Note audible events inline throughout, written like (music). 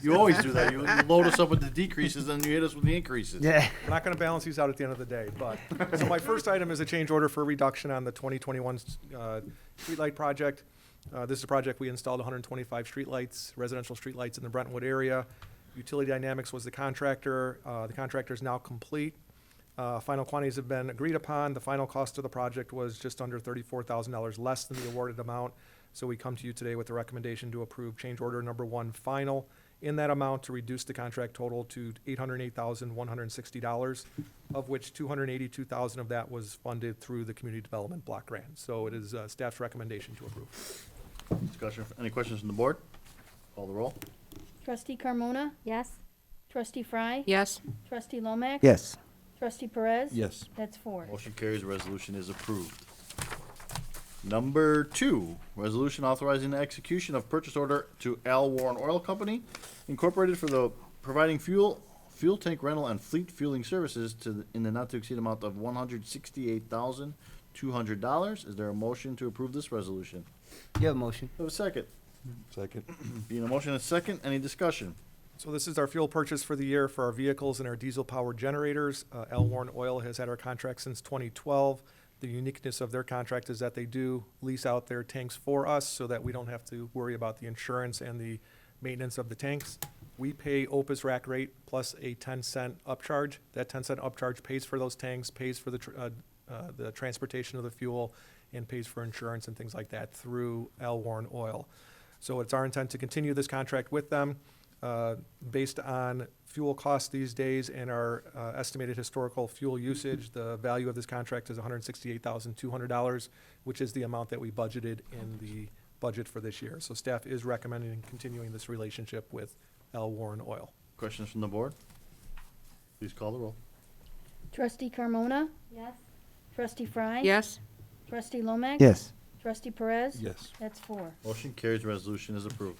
You always do that. You you load us up with the decreases, then you hit us with the increases. Yeah. We're not going to balance these out at the end of the day, but, so my first item is a change order for reduction on the 2021 uh, streetlight project. Uh, This is a project, we installed 125 streetlights, residential streetlights in the Brentwood area. Utility Dynamics was the contractor. Uh, The contractor is now complete. Uh, Final quantities have been agreed upon. The final cost of the project was just under $34,000 less than the awarded amount. So we come to you today with a recommendation to approve change order number one final in that amount to reduce the contract total to $808,160, of which $282,000 of that was funded through the Community Development Block Grant. So it is uh, staff's recommendation to approve. Discussion, any questions from the board? Call the roll. Trustee Carmona? Yes. Trustee Fry? Yes. Trustee Lomax? Yes. Trustee Perez? Yes. That's four. Motion carries, resolution is approved. Number two, resolution authorizing the execution of purchase order to Al Warren Oil Company Incorporated for the providing fuel, fuel tank rental and fleet fueling services to, the- in the not to exceed amount of one hundred sixty-eight thousand, two hundred dollars. Is there a motion to approve this resolution? You have a motion. Have a second. (clears throat) Second. Being a motion and a second, any discussion? So this is our fuel purchase for the year for our vehicles and our diesel-powered generators. Uh, L. Warren Oil has had our contract since 2012. The uniqueness of their contract is that they do lease out their tanks for us so that we don't have to worry about the insurance and the maintenance of the tanks. We pay Opus rack rate plus a 10 cent upcharge. That 10 cent upcharge pays for those tanks, pays for the, tr- uh, uh, the transportation of the fuel, and pays for insurance and things like that through L. Warren Oil. So it's our intent to continue this contract with them. Uh, Based on fuel costs these days and our uh, estimated historical fuel usage, the value of this contract is $168,200, which is the amount that we budgeted in the budget for this year. So staff is recommending continuing this relationship with L. Warren Oil. Questions from the board? Please call the roll. Trustee Carmona? Yes. Trustee Fry? Yes. Trustee Lomax? Yes. Trustee Perez? Yes. That's four. Motion carries, resolution is approved.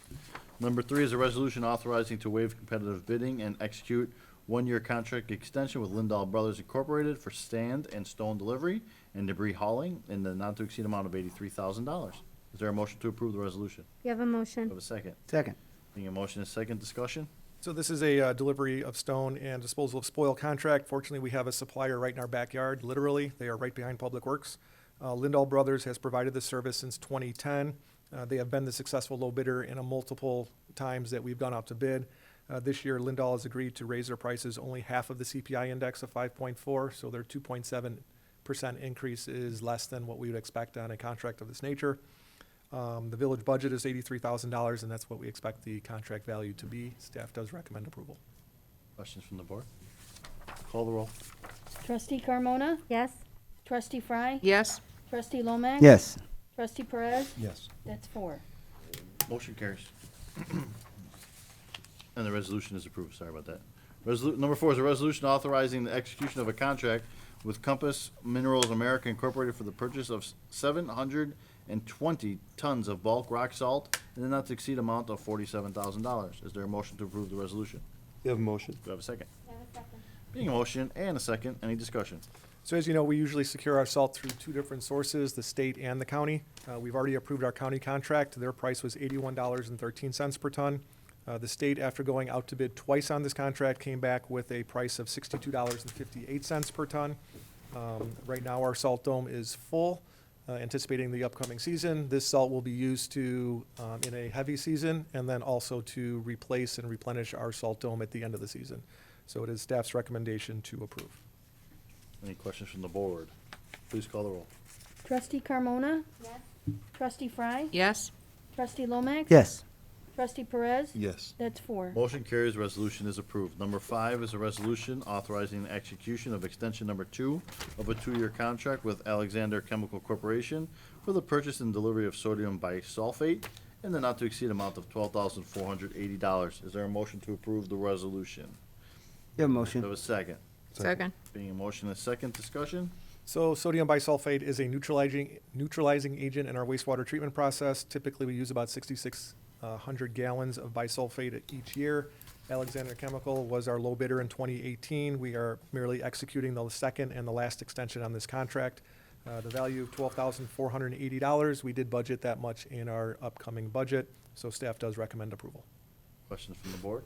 Number three is a resolution authorizing to waive competitive bidding and execute one-year contract extension with Lindahl Brothers Incorporated for sand and stone delivery and debris hauling in the not-to-exceed amount of eighty-three thousand dollars. Is there a motion to approve the resolution? You have a motion? Have a second. Second. Being a motion and second discussion? So this is a uh, delivery of stone and disposal of spoil contract. Fortunately, we have a supplier right in our backyard, literally. They are right behind Public Works. Uh, Lindahl Brothers has provided this service since 2010. Uh, They have been the successful low bidder in a multiple times that we've gone out to bid. Uh, This year, Lindahl has agreed to raise their prices only half of the CPI index of 5.4, so their 2.7% increase is less than what we would expect on a contract of this nature. Um, The village budget is eighty-three thousand dollars, and that's what we expect the contract value to be. Staff does recommend approval. Questions from the board? Call the roll. Trustee Carmona? Yes. Trustee Fry? Yes. Trustee Lomax? Yes. Trustee Perez? Yes. That's four. Motion carries. And the resolution is approved, sorry about that. Resolu, number four is a resolution authorizing the execution of a contract with Compass Minerals America Incorporated for the purchase of seven hundred and twenty tons of bulk rock salt in the not to exceed amount of forty-seven thousand dollars. Is there a motion to approve the resolution? You have a motion? Do I have a second? Being a motion and a second, any discussion? So as you know, we usually secure our salt through two different sources, the state and the county. Uh, We've already approved our county contract. Their price was eighty-one dollars and thirteen cents per ton. Uh, The state, after going out to bid twice on this contract, came back with a price of sixty-two dollars and fifty-eight cents per ton. Um, Right now, our salt dome is full, uh, anticipating the upcoming season. This salt will be used to, um, in a heavy season, and then also to replace and replenish our salt dome at the end of the season. So it is staff's recommendation to approve. Any questions from the board? Please call the roll. Trustee Carmona? Yes. Trustee Fry? Yes. Trustee Lomax? Yes. Trustee Perez? Yes. That's four. Motion carries, resolution is approved. Number five is a resolution authorizing the execution of extension number two of a two-year contract with Alexander Chemical Corporation for the purchase and delivery of sodium bisulfate in the not-to-exceed amount of twelve thousand four hundred eighty dollars. Is there a motion to approve the resolution? You have a Do I have motion. a second? Second. Being a motion and a second discussion, So sodium bisulfate is a neutralizing, neutralizing agent in our wastewater treatment process. Typically, we use about 6,600 gallons of bisulfate each year. Alexander Chemical was our low bidder in 2018. We are merely executing the second and the last extension on this contract. Uh, The value of $12,480, we did budget that much in our upcoming budget, so staff does recommend approval. questions from the board?